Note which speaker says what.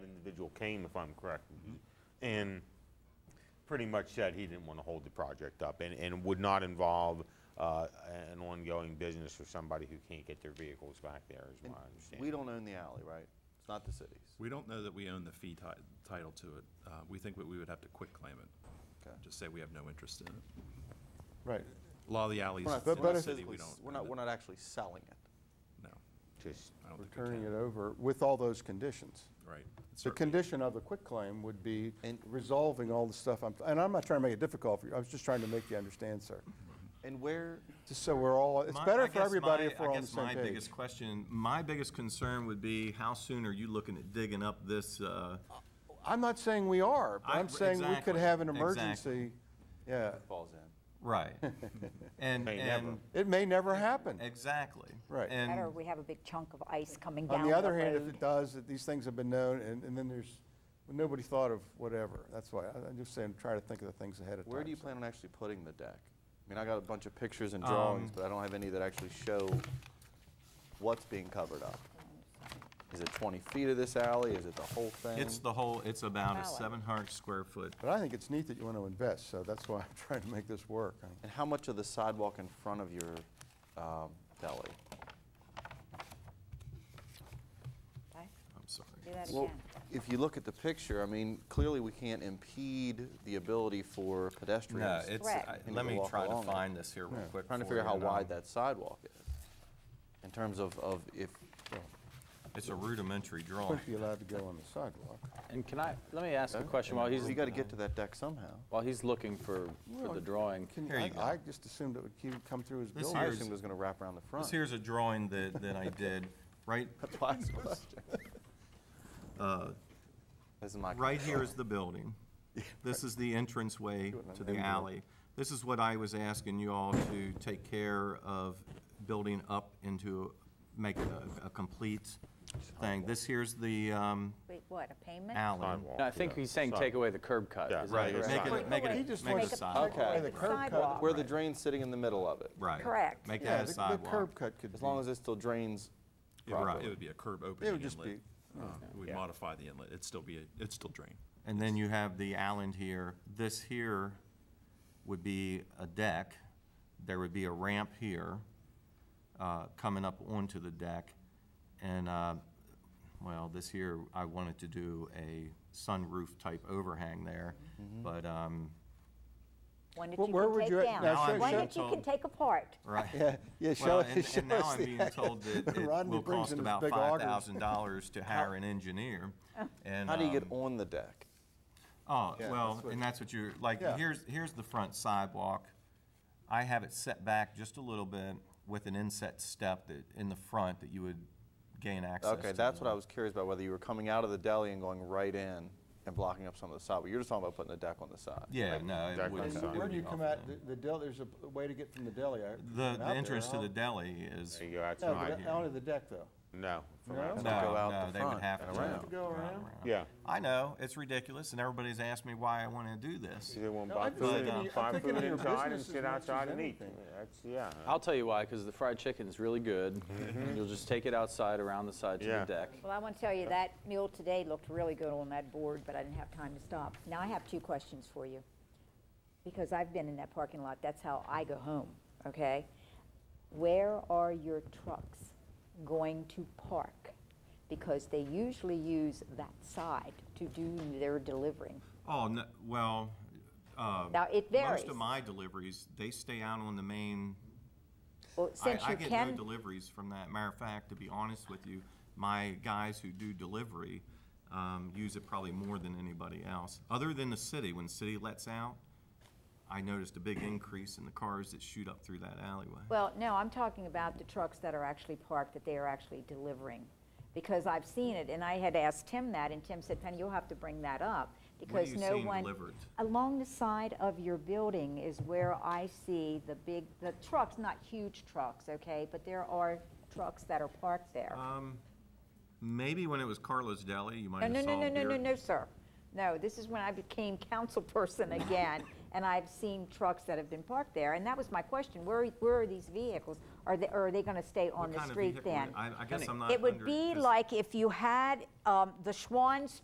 Speaker 1: individual came, if I'm correct, and pretty much said he didn't want to hold the project up and, and would not involve uh, an ongoing business for somebody who can't get their vehicles back there, is my understanding.
Speaker 2: We don't own the alley, right? It's not the city's.
Speaker 3: We don't know that we own the fee ti- title to it. Uh, We think that we would have to quit claim it.
Speaker 2: Okay.
Speaker 3: Just say we have no interest in it.
Speaker 4: Right.
Speaker 3: A lot of the alleys
Speaker 2: We're not,
Speaker 3: in
Speaker 2: we're
Speaker 3: the
Speaker 2: not
Speaker 3: city,
Speaker 2: physically
Speaker 3: we
Speaker 2: s-
Speaker 3: don't.
Speaker 2: we're
Speaker 3: own
Speaker 2: not,
Speaker 3: it.
Speaker 2: we're not actually selling it.
Speaker 3: No,
Speaker 1: Just,
Speaker 3: I don't
Speaker 4: We're
Speaker 3: think we
Speaker 4: turning it
Speaker 3: can.
Speaker 4: over with all those conditions.
Speaker 3: Right.
Speaker 4: The
Speaker 3: Certainly.
Speaker 4: condition of the quitclaim would be resolving all the stuff, I'm- and I'm not trying to make it difficult for you, I was just trying to make you understand, sir.
Speaker 2: And where,
Speaker 4: Just so we're all, it's
Speaker 5: My- I
Speaker 4: better for
Speaker 5: guess
Speaker 4: everybody
Speaker 5: my-
Speaker 4: if we're
Speaker 5: I
Speaker 4: on the
Speaker 5: guess
Speaker 4: same
Speaker 5: My
Speaker 4: page.
Speaker 5: biggest question, my biggest concern would be how soon are you looking at digging up this, uh,
Speaker 4: I'm not saying we are, but
Speaker 5: I-
Speaker 4: I'm saying we could
Speaker 5: exactly,
Speaker 4: have an
Speaker 5: exactly.
Speaker 4: emergency, yeah.
Speaker 2: falls in.
Speaker 5: right? And,
Speaker 1: Hey, never.
Speaker 5: and,
Speaker 4: It may never happen.
Speaker 5: exactly.
Speaker 4: Right.
Speaker 5: And-
Speaker 6: Better, we have a big chunk of ice coming
Speaker 4: On
Speaker 6: down the
Speaker 4: the other hand, if
Speaker 6: road.
Speaker 4: it does, that these things have been known, and, and then there's, nobody thought of whatever. That's why, I- I'm just saying, try to think of the things ahead of time.
Speaker 2: Where do you
Speaker 4: so.
Speaker 2: plan on actually putting the deck? I mean, I got a bunch of pictures and
Speaker 3: Um,
Speaker 2: drawings, but I don't have any that actually show what's being covered up. Is it 20 feet of this alley? Is it the whole thing?
Speaker 5: It's the whole, it's about a
Speaker 6: Valid.
Speaker 5: seven hundred square foot.
Speaker 4: But I think it's neat that you want to invest, so that's why I'm trying to make this work. I mean,
Speaker 2: And how much of the sidewalk in front of your um, deli?
Speaker 6: Okay,
Speaker 5: I'm sorry.
Speaker 6: Do that
Speaker 2: Well,
Speaker 6: again.
Speaker 2: if you look at the picture, I mean, clearly we can't impede the ability for
Speaker 5: No,
Speaker 2: pedestrians.
Speaker 5: it's,
Speaker 6: Correct.
Speaker 5: I-
Speaker 2: You need
Speaker 5: let
Speaker 2: to
Speaker 5: me
Speaker 2: walk
Speaker 5: try to
Speaker 2: along it.
Speaker 5: find this here real quick.
Speaker 2: Trying to
Speaker 5: for
Speaker 2: figure out
Speaker 5: you,
Speaker 2: how
Speaker 5: and um, I'll-
Speaker 2: wide that sidewalk is, in terms of, of if,
Speaker 5: It's a rudimentary drawing.
Speaker 4: Wouldn't be allowed to go on the sidewalk.
Speaker 7: And can I, let me ask a question while he's,
Speaker 2: you gotta get to that deck somehow.
Speaker 7: while Oh, he's looking for, for the drawing.
Speaker 4: Can
Speaker 5: Here
Speaker 4: I-
Speaker 5: you go.
Speaker 4: I just assumed it would keep- come through his
Speaker 5: This
Speaker 4: building.
Speaker 2: I
Speaker 5: Here's-
Speaker 2: assumed it was gonna wrap around the front.
Speaker 5: This here's a drawing that, that I did, right,
Speaker 2: That's why I asked the question. This is my.
Speaker 5: Uh, Right here is the building. This is the entranceway to the alley. This is what I was asking you all to take care of building up into, make it a, a complete thing. This here's the, um,
Speaker 6: Wait, what, a payment?
Speaker 5: alley.
Speaker 1: sidewalk,
Speaker 7: No, I think
Speaker 1: yeah.
Speaker 7: he's saying take
Speaker 1: Sidewalk.
Speaker 7: away the curb cut.
Speaker 1: Yeah,
Speaker 7: is that
Speaker 1: right,
Speaker 7: correct?
Speaker 5: Make
Speaker 6: Right.
Speaker 5: it, make
Speaker 6: He
Speaker 5: it,
Speaker 4: just
Speaker 5: make
Speaker 4: wants
Speaker 5: it a
Speaker 4: to
Speaker 5: sidewalk.
Speaker 2: Okay.
Speaker 4: The curb cut.
Speaker 6: Sidewalk.
Speaker 2: Where the drain's sitting in the middle of it.
Speaker 5: Right.
Speaker 6: Correct.
Speaker 5: Make
Speaker 4: Yeah, the-
Speaker 5: that a
Speaker 4: the curb
Speaker 5: sidewalk.
Speaker 4: cut could be.
Speaker 2: As long as it still drains
Speaker 3: It would-
Speaker 2: properly.
Speaker 3: It would be a curb opening
Speaker 4: would just
Speaker 3: inlet. Uh, We'd modify the inlet. It'd still be, a- it'd still drain.
Speaker 5: And then you have the island here. This here would be a deck. There would be a ramp here, uh, coming up onto the deck. And, uh, well, this here, I wanted to do a sunroof type overhang there,
Speaker 4: Mm-hmm.
Speaker 5: but, um,
Speaker 6: One that
Speaker 4: Well, where
Speaker 6: you
Speaker 4: would
Speaker 6: can
Speaker 4: you at-
Speaker 6: take
Speaker 4: now
Speaker 5: show-
Speaker 6: down, one
Speaker 5: show-
Speaker 6: that you can
Speaker 5: Told-
Speaker 6: take apart.
Speaker 5: right.
Speaker 4: Yeah, yeah, show
Speaker 5: Well,
Speaker 4: us,
Speaker 5: and-
Speaker 4: show
Speaker 5: And now
Speaker 4: us
Speaker 5: I'm
Speaker 4: the-
Speaker 5: being told that it
Speaker 4: Rodney
Speaker 5: will
Speaker 4: brings
Speaker 5: cost
Speaker 4: in his
Speaker 5: about
Speaker 4: big augers.
Speaker 5: five thousand dollars to hire an engineer. And,
Speaker 2: How do you get
Speaker 5: um,
Speaker 2: on the deck?
Speaker 5: Oh,
Speaker 4: Yeah,
Speaker 5: well,
Speaker 4: that's what-
Speaker 5: and that's what you're, like,
Speaker 4: Yeah.
Speaker 5: here's, here's the front sidewalk. I have it set back just a little bit with an inset step that, in the front that you would gain access to.
Speaker 2: Okay, that's what I was curious about, whether you were coming out of the deli and going right in and blocking up some of the sidewalk. You're just talking about putting the deck on the side.
Speaker 5: Yeah, no, it
Speaker 1: Exactly.
Speaker 5: would.
Speaker 1: And
Speaker 5: it
Speaker 4: Where
Speaker 5: would
Speaker 4: do you
Speaker 5: be
Speaker 4: come
Speaker 5: off
Speaker 4: out,
Speaker 5: of
Speaker 4: the- the deli, there's a p- way to get from the deli. I-
Speaker 5: The,
Speaker 4: out
Speaker 5: the
Speaker 4: there,
Speaker 5: entrance to
Speaker 4: huh?
Speaker 5: the deli is,
Speaker 1: There you go, that's
Speaker 4: No,
Speaker 1: not
Speaker 4: but
Speaker 1: here.
Speaker 4: onto the deck, though.
Speaker 1: No. from
Speaker 4: No?
Speaker 1: outside.
Speaker 5: no,
Speaker 2: go out
Speaker 5: no,
Speaker 2: the
Speaker 5: they would
Speaker 2: front
Speaker 5: have to.
Speaker 2: and
Speaker 5: go
Speaker 2: around.
Speaker 4: Go around?
Speaker 1: Yeah.
Speaker 5: I know, it's ridiculous, and everybody's asked me why I want to do this.
Speaker 1: They won't
Speaker 4: No, I'm
Speaker 1: buy
Speaker 4: just
Speaker 1: food,
Speaker 4: thinking of
Speaker 1: in-
Speaker 4: your-
Speaker 1: buy
Speaker 4: I'm thinking
Speaker 1: food
Speaker 4: of your
Speaker 1: inside and
Speaker 4: business as
Speaker 1: sit
Speaker 4: much
Speaker 1: outside
Speaker 4: as
Speaker 1: and eat.
Speaker 4: anything.
Speaker 1: That's, yeah.
Speaker 7: I'll tell you why, because the fried chicken's really good. and You'll just take it outside around the side to
Speaker 1: Mm-hmm. Yeah.
Speaker 7: the deck.
Speaker 6: Well, I want to tell you, that meal today looked really good on that board, but I didn't have time to stop. Now, I have two questions for you, because I've been in that parking lot, that's how I go home, okay? Where are your trucks going to park? Because they usually use that side to do their delivering.
Speaker 5: Oh, no, well, uh,
Speaker 6: Now, it varies.
Speaker 5: most of my deliveries, they stay out on the main
Speaker 6: Well,
Speaker 5: I,
Speaker 6: since
Speaker 5: I
Speaker 6: you
Speaker 5: get no
Speaker 6: can,
Speaker 5: deliveries from that. Matter of fact, to be honest with you, my guys who do delivery um, use it probably more than anybody else. Other than the city, when the city lets out, I noticed a big increase in the cars that shoot up through that alleyway.
Speaker 6: well, no, I'm talking about the trucks that are actually parked, that they are actually delivering. Because I've seen it, and I had asked Tim that, and Tim said, Penny, you'll have to bring that up,
Speaker 5: What are
Speaker 6: because
Speaker 5: you
Speaker 6: no
Speaker 5: seeing
Speaker 6: one.
Speaker 5: delivered?
Speaker 6: Along the side of your building is where I see the big, the trucks, not huge trucks, okay? But there are trucks that are parked
Speaker 5: Ah.
Speaker 6: there.
Speaker 5: Maybe when it was Carlos Deli, you might
Speaker 6: No,
Speaker 5: have
Speaker 6: no,
Speaker 5: saw
Speaker 6: no, no, no,
Speaker 5: there-
Speaker 6: no, no, sir. No, this is when I became council person again, and I've seen trucks that have been parked there, and that was my question, where, are- where are these vehicles? Are they, or are they gonna stay
Speaker 5: What
Speaker 6: on the
Speaker 5: kind of
Speaker 6: street
Speaker 5: vehicle
Speaker 6: then?
Speaker 5: would- I, I guess I'm not.
Speaker 6: It would
Speaker 5: under-
Speaker 6: be
Speaker 5: 'cause-
Speaker 6: like if you had, um, the Schwann's